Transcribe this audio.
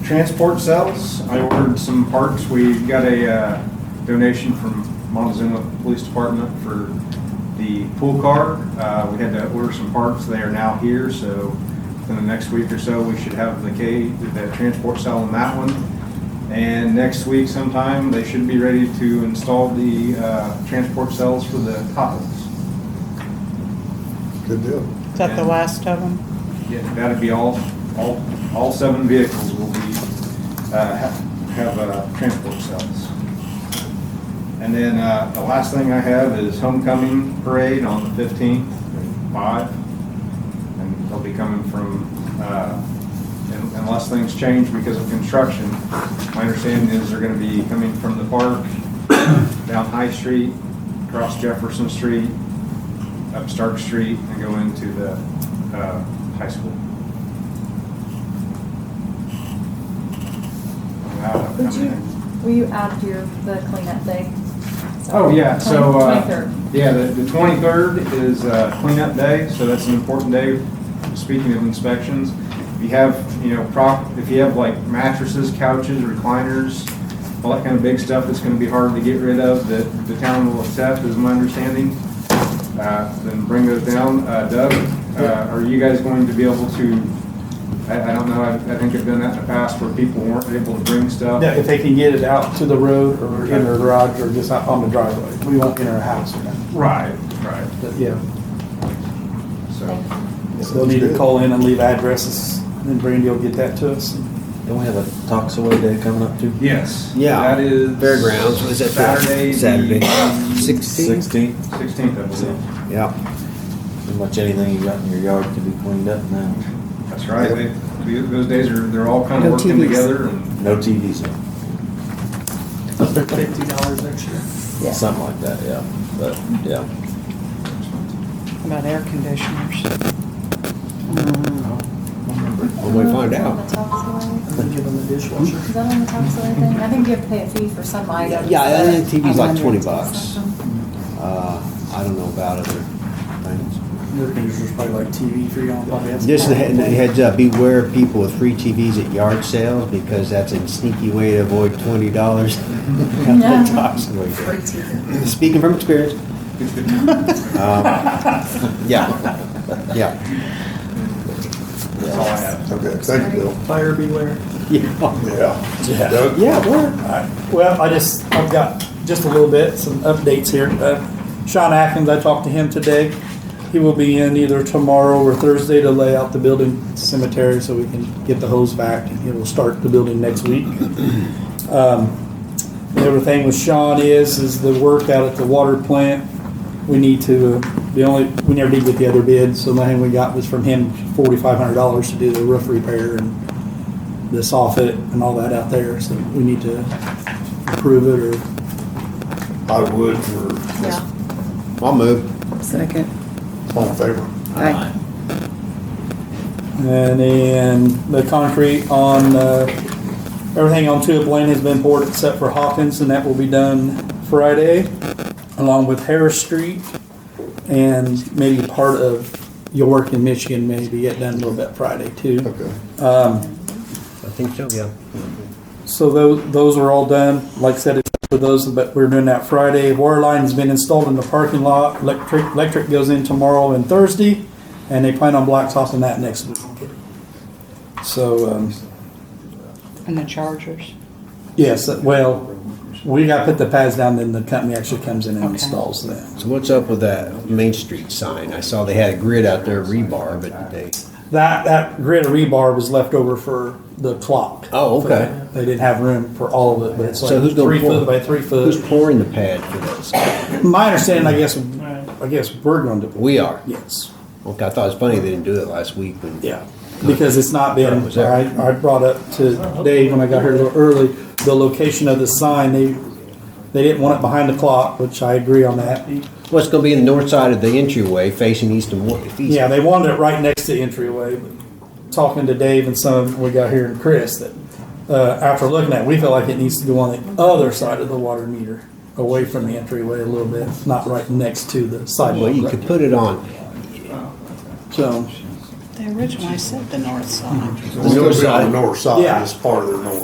transport cells. I ordered some parts. We got a uh, donation from Montezuma Police Department for the pool car. Uh, We had to order some parts. They are now here, so within the next week or so, we should have the K, the transport cell on that one. And next week sometime, they should be ready to install the uh, transport cells for the topless. Good deal. Is that the last of them? Yeah, that'd be all, all, all seven vehicles will be, uh, have, have, uh, transport cells. And then, uh, the last thing I have is homecoming parade on the fifteenth, five. And they'll be coming from, uh, un- unless things change because of construction. My understanding is they're gonna be coming from the park, down High Street, across Jefferson Street, up Stark Street and go into the uh, high school. Wow, Would you, upcoming. will you add your, the cleanup day? Oh, yeah, so, uh, Twenty-third. yeah, the, the twenty-third is, uh, cleanup day, so that's an important day, speaking of inspections. If you have, you know, prop, if you have like mattresses, couches, recliners, all that kind of big stuff that's gonna be hard to get rid of, that the town will accept, is my understanding. Uh, then bring those down, uh, Doug, uh, are you guys going to be able to, I, I don't know, I, I think I've done that in the past where people weren't able to bring stuff. Yeah, if they can get it out to the road or in their garage or just out on the driveway. We won't enter a house or nothing, Right, right, but yeah. so. They'll need to call in and leave addresses and then Brandy will get that to us. Don't we have a Toxaway Day coming up too? Yes. Yeah. That is. Fairgrounds, was it Saturday? Saturday? Sixteen? Sixteen. Sixteenth, I believe. Yeah. Pretty much anything you got in your yard can be cleaned up now. That's right. They- they- Those days are, they're all kind of No working TVs. together and No TVs, no. Fifty dollars extra. something like that, yeah. But, yeah. How About air conditioners. When we find out. Is Give them the dishwasher. that on the top side thing? I think you have to pay a fee for some items. Yeah, I think but TV's like I'm twenty wondering if it's bucks. something. Uh, I don't know about other things. Their conditioner's probably like TV for you on probably. has- Just a head- heads up, beware of people with free TVs at yard sales because that's a sneaky way to avoid twenty dollars. Yeah. Free TV. Speaking from experience. Um, Yeah, yeah, that's all I have. Okay, thank you, Bill. Fire beware. yeah. Yeah. Doug? Yeah, we're, Alright, well, I just, I've got just a little bit, some updates here. Uh, Sean Atkins, I talked to him today. He will be in either tomorrow or Thursday to lay out the building cemetery so we can get the hose back and it will start the building next week. Um, and Everything with Sean is, is the work out at the water plant. We need to, uh, the only, we never did get the other bid, so the only thing we got was from him forty-five hundred dollars to do the roof repair and the soffit and all that out there, so we need to approve it or I would for, Yeah. I'll move. Second. all in favor. Aye. And then the concrete on, uh, everything on Tulip Lane has been poured except for Hawkins, and that will be done Friday, along with Harris Street, and maybe part of York and Michigan may be get done a little bit Friday too. Okay. I think so, yeah. So those, those are all done, like I said, except for those, but we're doing that Friday. Water line's been installed in the parking lot, electric, electric goes in tomorrow and Thursday, and they plan on blacktopping that next week. So, um, And the chargers. Yes, well, we gotta put the pads down, then the company actually comes in and Okay. installs them. So what's up with that Main Street sign? I saw they had a grid out there, rebar, but they, That, that grid of rebar was left over for the clock. Oh, okay. They didn't have room for all of it, but it's So like who's gonna three pour- foot by three who's foot. pouring the pad for this? My understanding, I guess, I guess we're going to, We are. yes, Okay, I thought it was funny they didn't do it last week when. yeah. Because it's not been, Was that- I, I brought up to Dave when I got here a little early, the location of the sign, they, they didn't want it behind the clock, which I agree on that. Well, it's gonna be in the north side of the entryway facing east and west. Yeah, they wanted it right next to the entryway. but Talking to Dave and some we got here and Chris, that uh, after looking at, it, we feel like it needs to go on the other side of the water meter, away from the entryway a little bit, not right next to the Well, you sidewalk. could put it on, So They originally said the north side. It's gonna be on side. the north side, Yeah. it's part of their north.